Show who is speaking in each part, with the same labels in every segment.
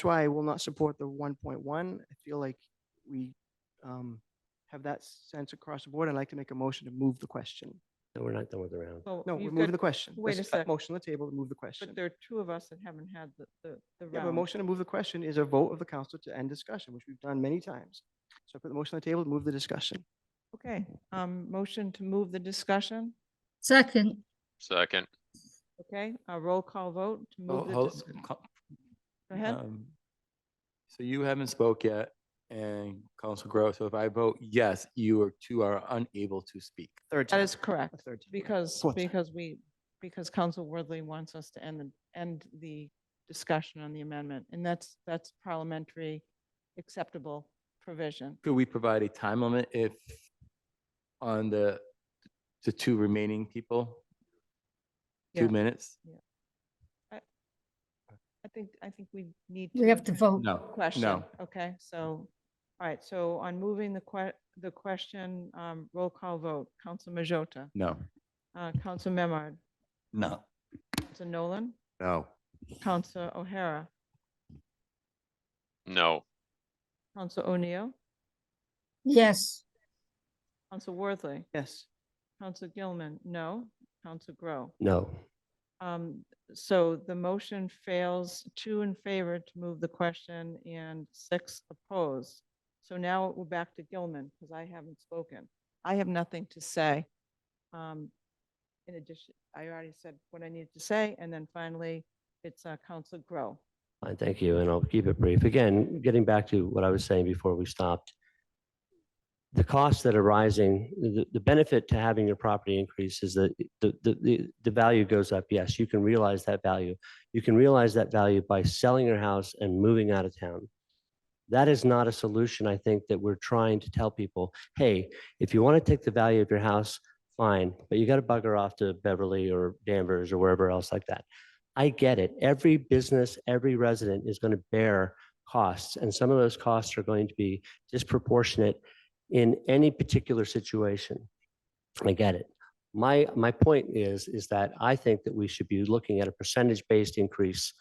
Speaker 1: That's why I will not support the one point one. I feel like we um, have that sense across the board. I'd like to make a motion to move the question.
Speaker 2: No, we're not done with the round.
Speaker 3: Well,
Speaker 1: No, we're
Speaker 3: you've
Speaker 1: moving
Speaker 3: got-
Speaker 1: the question.
Speaker 3: wait
Speaker 1: This
Speaker 3: a sec.
Speaker 1: Motion on the table to move the question.
Speaker 3: But there are two of us that haven't had the, the, the
Speaker 1: Yeah, but a
Speaker 3: round.
Speaker 1: motion to move the question is a vote of the council to end discussion, which we've done many times. So I put the motion on the table to move the discussion.
Speaker 3: Okay, um, motion to move the discussion,
Speaker 4: Second,
Speaker 5: Second,
Speaker 3: okay? A roll call vote to
Speaker 6: Oh,
Speaker 3: move the,
Speaker 6: hold-
Speaker 3: dis-
Speaker 6: co-
Speaker 3: go ahead.
Speaker 6: um, So you haven't spoke yet and Council Grow, so if I vote yes, you are two are unable to speak.
Speaker 1: Third
Speaker 3: That
Speaker 1: time.
Speaker 3: is correct,
Speaker 1: A third time.
Speaker 3: because,
Speaker 1: Fourth time.
Speaker 3: because we, because Council Worthley wants us to end, the end the discussion on the amendment. And that's, that's parliamentary acceptable provision.
Speaker 6: Could we provide a time limit if on the, the two remaining people?
Speaker 3: Yeah.
Speaker 6: Two minutes?
Speaker 3: I think, I think we need.
Speaker 4: we have to vote.
Speaker 6: No,
Speaker 3: Question,
Speaker 6: no.
Speaker 3: okay, so, all right, so on moving the que, the question, um, roll call vote, Council Majota,
Speaker 6: No.
Speaker 3: uh, Council Memard,
Speaker 6: No.
Speaker 3: Council Nolan,
Speaker 2: No.
Speaker 3: Council O'Hara,
Speaker 5: no.
Speaker 3: Council O'Neill,
Speaker 4: Yes,
Speaker 3: Council Worthley,
Speaker 1: Yes.
Speaker 3: Council Gilman, no, Council Grow.
Speaker 2: No.
Speaker 3: Um, so the motion fails, two in favor to move the question and six opposed. So now we're back to Gilman, because I haven't spoken. I have nothing to say. Um, in addition, I already said what I needed to say, and then finally, it's, uh, Council Grow.
Speaker 2: Fine, thank you, and I'll keep it brief. Again, getting back to what I was saying before we stopped. The costs that are rising, the, the benefit to having your property increase is that the, the, the, the value goes up. Yes, you can realize that value. You can realize that value by selling your house and moving out of town. That is not a solution, I think, that we're trying to tell people, hey, if you want to take the value of your house, fine, but you got to bugger off to Beverly or Danvers or wherever else like that. I get it. Every business, every resident is going to bear costs, and some of those costs are going to be disproportionate in any particular situation. I get it. My, my point is, is that I think that we should be looking at a percentage-based increase,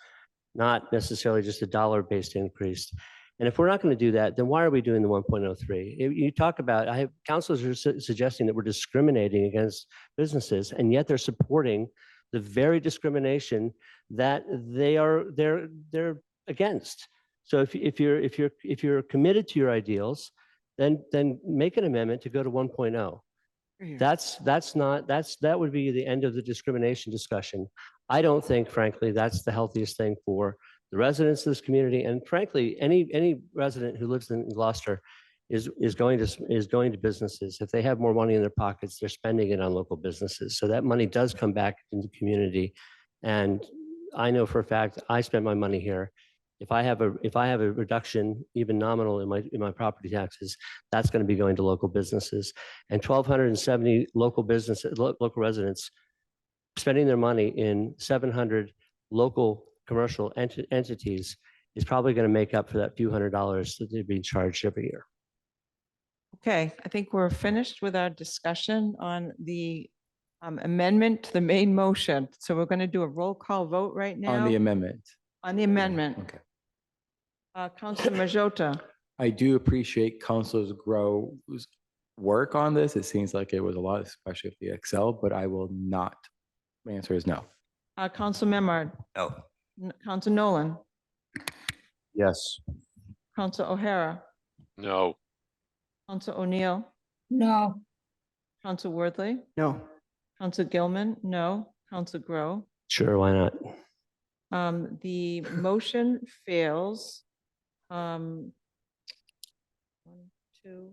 Speaker 2: not necessarily just a dollar-based increase. And if we're not going to do that, then why are we doing the 1.03? You- You talk about, I have, councilors are su- suggesting that we're discriminating against businesses, and yet they're supporting the very discrimination that they are they're they're against. So if if you're if you're if you're committed to your ideals, then then make an amendment to oh. go to 1.0. That's that's not that's that would be the end of the discrimination discussion. I don't think frankly that's the healthiest thing for the residents of this community and frankly any any resident who lives in Gloucester is is going to s- is going to businesses. If they have more money in their pockets, they're spending it on local businesses. So that money does come back into the community. And I know for a fact I spend my money here. If I have a if I have a reduction even nominal in my in my property taxes, that's going to be going to local businesses and twelve hundred and seventy local businesses, lo- local residents spending their money in seven hundred local commercial enti- entities is probably going to make up for that few hundred dollars that they're being charged every year.
Speaker 3: Okay, I think we're finished with our discussion on the, um, amendment to the main motion. So we're gonna do a roll call vote right now.
Speaker 6: On the amendment.
Speaker 3: On the amendment.
Speaker 6: Okay.
Speaker 3: Uh, Council Majota,
Speaker 6: I do appreciate Councilors Grove's work on this. It seems like it was a lot, especially with the Excel, but I will not. My answer is no.
Speaker 3: uh, Council Memard,
Speaker 6: No.
Speaker 3: N- Council Nolan,
Speaker 2: Yes.
Speaker 3: Council O'Hara,
Speaker 5: No,
Speaker 3: Council O'Neill,
Speaker 4: no,
Speaker 3: Council Worthley,
Speaker 1: No.
Speaker 3: Council Gilman, no, Council Grow.
Speaker 2: Sure, why not?
Speaker 3: Um, the motion fails. Um, one, two,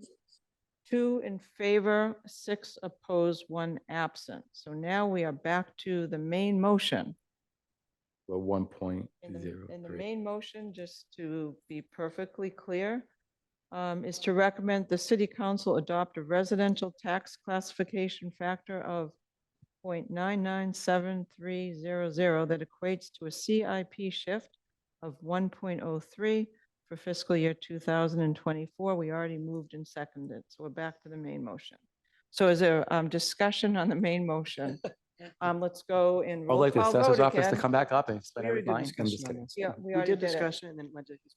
Speaker 3: two in favor, six opposed, one absent. So now we are back to the main motion.
Speaker 6: Well, one point
Speaker 3: In
Speaker 6: zero
Speaker 3: the, in the
Speaker 6: three.
Speaker 3: main motion, just to be perfectly clear, um, is to recommend the city council adopt a residential tax classification factor of 0.997300 that equates to a CIP shift of one point oh three for fiscal year two thousand and twenty-four. We already moved and seconded, so we're back to the main motion. So is there, um, discussion on the main motion? Um, let's go and
Speaker 6: I'd
Speaker 3: roll
Speaker 6: like the
Speaker 3: call vote
Speaker 6: assessor's office to
Speaker 3: again.
Speaker 6: come back up and explain
Speaker 1: We already did
Speaker 6: everything. I'm just
Speaker 1: discussion on
Speaker 6: kidding.
Speaker 1: this.
Speaker 3: Yeah, we
Speaker 1: We
Speaker 3: already
Speaker 1: did
Speaker 3: did it.
Speaker 1: discussion and then it went to his